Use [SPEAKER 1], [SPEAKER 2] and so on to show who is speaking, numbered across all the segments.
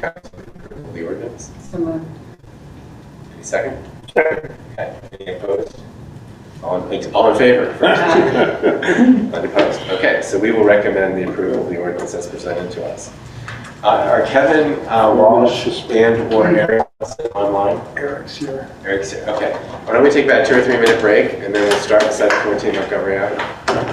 [SPEAKER 1] council to approve the ordinance?
[SPEAKER 2] So moved.
[SPEAKER 1] Any second? Okay, any opposed? All in, all in favor? Unopposed, okay, so we will recommend the approval of the ordinance as presented to us. Uh, Are Kevin uh, Walsh and or Eric Nelson online?
[SPEAKER 3] Eric's here.
[SPEAKER 1] Eric's here, okay. Why don't we take about a two or three minute break, and then we'll start with 714 Montgomery Avenue.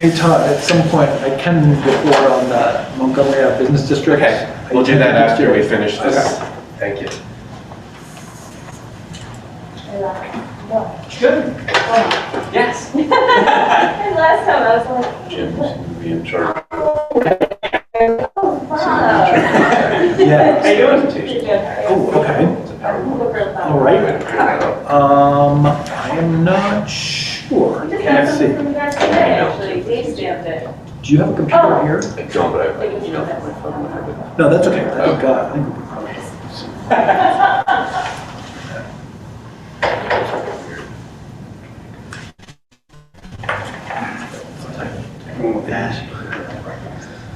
[SPEAKER 3] Hey Todd, at some point, I can report on the Montgomery Ave Business District.
[SPEAKER 1] Okay, we'll do that after we finish this.
[SPEAKER 3] Okay.
[SPEAKER 1] Thank you.
[SPEAKER 4] Yes.
[SPEAKER 5] And last time I was like,
[SPEAKER 6] Jim's going to be in charge.
[SPEAKER 5] oh, wow.
[SPEAKER 3] Yeah.
[SPEAKER 6] How you
[SPEAKER 5] Pretty
[SPEAKER 6] doing?
[SPEAKER 5] good, right?
[SPEAKER 3] Oh, okay,
[SPEAKER 6] It's a PowerPoint.
[SPEAKER 5] Look real
[SPEAKER 3] all
[SPEAKER 5] fun.
[SPEAKER 3] right. Um, I am not sure.
[SPEAKER 5] We just got
[SPEAKER 3] Let's
[SPEAKER 5] something
[SPEAKER 3] see.
[SPEAKER 5] from you guys today, actually. Dave stamped it.
[SPEAKER 3] Do you have a
[SPEAKER 4] Oh.
[SPEAKER 3] computer here?
[SPEAKER 6] I don't, but I have an email from my phone. I have it.
[SPEAKER 3] No, that's okay. I think, uh, I think we'll be fine.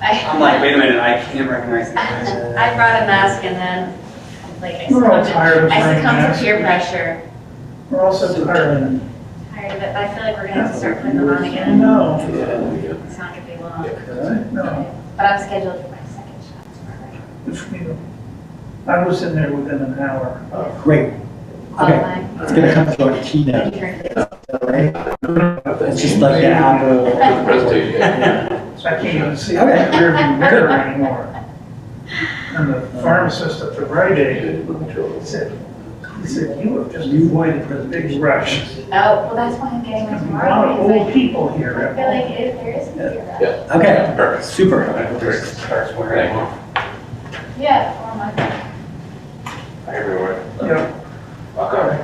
[SPEAKER 4] I'm like, wait a minute, I can't recognize this.
[SPEAKER 2] I brought a mask and then, like, I
[SPEAKER 7] We're all
[SPEAKER 2] succumbed,
[SPEAKER 7] tired of
[SPEAKER 2] I
[SPEAKER 7] wearing
[SPEAKER 2] succumbed to
[SPEAKER 7] masks.
[SPEAKER 2] peer pressure.
[SPEAKER 7] We're also tired.
[SPEAKER 2] Tired of it, but I feel like we're gonna have to start putting them on again.
[SPEAKER 7] No.
[SPEAKER 6] Yeah,
[SPEAKER 2] It's not gonna be long.
[SPEAKER 7] No.
[SPEAKER 2] But I'm scheduled for my second shot tomorrow.
[SPEAKER 7] Good for you. I was in there within an hour.
[SPEAKER 3] Great. Okay,
[SPEAKER 2] Qualifying.
[SPEAKER 3] it's gonna come to our keynote, all right? It's just like the Apple.
[SPEAKER 6] Presentation.
[SPEAKER 7] I can't even see the
[SPEAKER 3] Okay.
[SPEAKER 7] rearview mirror anymore. And the pharmacist at the Rite Aid said, he said, you have just avoided the big rush.
[SPEAKER 2] Oh, well, that's why I'm getting
[SPEAKER 7] There's
[SPEAKER 2] one
[SPEAKER 7] a lot of
[SPEAKER 2] tomorrow,
[SPEAKER 7] old
[SPEAKER 2] because
[SPEAKER 7] people
[SPEAKER 2] I I
[SPEAKER 7] here.
[SPEAKER 2] feel like if there is a fear
[SPEAKER 6] Yeah.
[SPEAKER 3] Okay,
[SPEAKER 6] Perfect.
[SPEAKER 3] super.
[SPEAKER 4] Starts wearing it.
[SPEAKER 2] of- Yeah, or my,
[SPEAKER 1] Hi, everyone.
[SPEAKER 7] Yeah,
[SPEAKER 1] Welcome.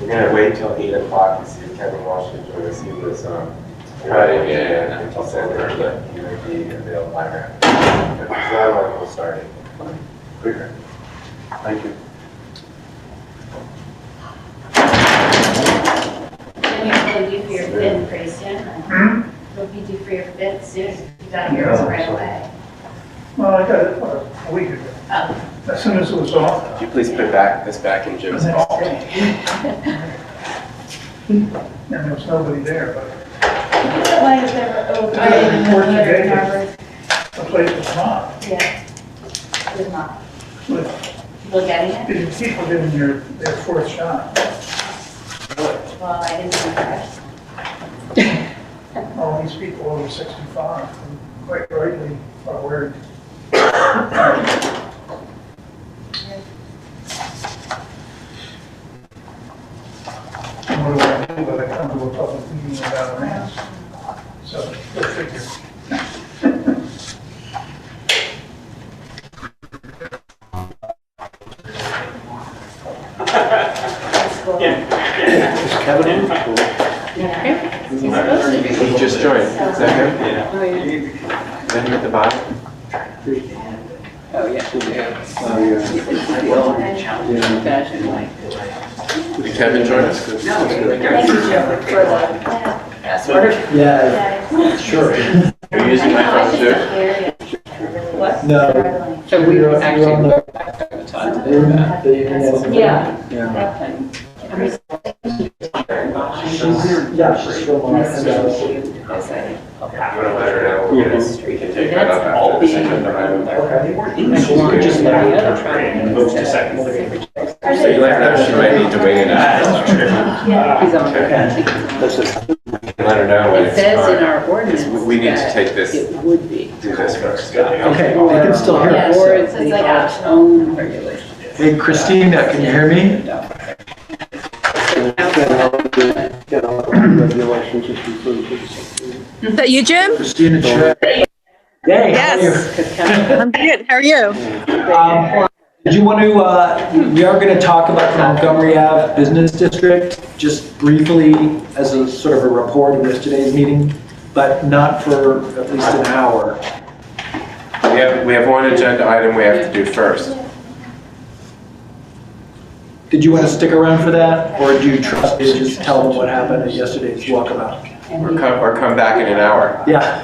[SPEAKER 1] We're gonna wait till eight o'clock and see if Kevin Walsh can join us. He was, um,
[SPEAKER 6] Right, yeah, yeah.
[SPEAKER 1] He said that he would be available by now. If he's not, on, we'll start it. Quicker. Thank you.
[SPEAKER 2] then you'll be due for your bid pretty soon.
[SPEAKER 7] Hmm?
[SPEAKER 2] You'll be due for your bid soon, you got yours right away.
[SPEAKER 7] well, I got it what, a week ago.
[SPEAKER 2] Oh,
[SPEAKER 7] As soon as it was off,
[SPEAKER 1] Could you please put back, this back in Jim's ball?
[SPEAKER 7] and there was nobody there, but
[SPEAKER 5] It's the one that's never opened.
[SPEAKER 7] I didn't even know that it
[SPEAKER 5] Harvard.
[SPEAKER 7] The place was not,
[SPEAKER 2] yeah. It's not,
[SPEAKER 7] but
[SPEAKER 2] people getting it?
[SPEAKER 7] people didn't hear their fourth shot.
[SPEAKER 2] Well, I didn't see that.
[SPEAKER 7] All these people over 65, and quite rightly, are worried. And What do I do when I come to a public meeting without a mask? So, go figure.
[SPEAKER 2] That's cool.
[SPEAKER 3] Is Kevin in? Cool.
[SPEAKER 2] Yeah.
[SPEAKER 1] He just joined. Is that him? Yeah. Is that him at the bottom? Did Kevin join us?
[SPEAKER 2] Thank you, Joe, for the.
[SPEAKER 3] Yeah,
[SPEAKER 2] Yeah.
[SPEAKER 3] sure.
[SPEAKER 6] Are you using my
[SPEAKER 2] I
[SPEAKER 6] phone
[SPEAKER 2] know,
[SPEAKER 6] too?
[SPEAKER 2] it's just a area.
[SPEAKER 4] What?
[SPEAKER 3] No.
[SPEAKER 2] Struggling.
[SPEAKER 4] So we
[SPEAKER 3] You're- you're on
[SPEAKER 4] actually.
[SPEAKER 3] the-
[SPEAKER 4] Yeah.
[SPEAKER 3] Yeah.
[SPEAKER 4] That
[SPEAKER 3] Yeah, she's still on. Okay.
[SPEAKER 1] You want to let her know? We'll get us- We can take that up
[SPEAKER 4] That's all
[SPEAKER 1] after the
[SPEAKER 4] being.
[SPEAKER 1] second round.
[SPEAKER 3] Just let the other
[SPEAKER 4] Move to second. He's
[SPEAKER 1] So you let her know she might need to weigh in. on
[SPEAKER 2] Yeah.
[SPEAKER 4] on.
[SPEAKER 3] Okay. That's just-
[SPEAKER 1] it. Let her know when
[SPEAKER 4] It
[SPEAKER 1] it's
[SPEAKER 4] says in
[SPEAKER 1] time.
[SPEAKER 4] our ordinance
[SPEAKER 1] We- We need to
[SPEAKER 4] that
[SPEAKER 1] take this,
[SPEAKER 4] It would be.
[SPEAKER 1] do this first.
[SPEAKER 3] Okay, I can still hear.
[SPEAKER 2] Yeah.
[SPEAKER 3] it.
[SPEAKER 4] Or
[SPEAKER 2] so
[SPEAKER 4] it's
[SPEAKER 2] it's
[SPEAKER 4] the
[SPEAKER 2] like
[SPEAKER 4] our
[SPEAKER 2] optional.
[SPEAKER 4] own regulation.
[SPEAKER 3] Hey Christina, can you hear me?
[SPEAKER 8] Is that you, Jim?
[SPEAKER 3] Christina Cherry. Hey, how are you?
[SPEAKER 8] Yes. I'm good. How are you?
[SPEAKER 3] Um, Did you want to, uh, we are going to talk about the Montgomery Ave Business District, just briefly as a sort of a report of yesterday's meeting, but not for at least an hour.
[SPEAKER 1] We have, we have one agenda item we have to do first.
[SPEAKER 3] Did you want to stick around for that, or do you trust me to just tell them what happened at yesterday's walkabout?
[SPEAKER 1] Or come, or come back in an hour.
[SPEAKER 3] Yeah.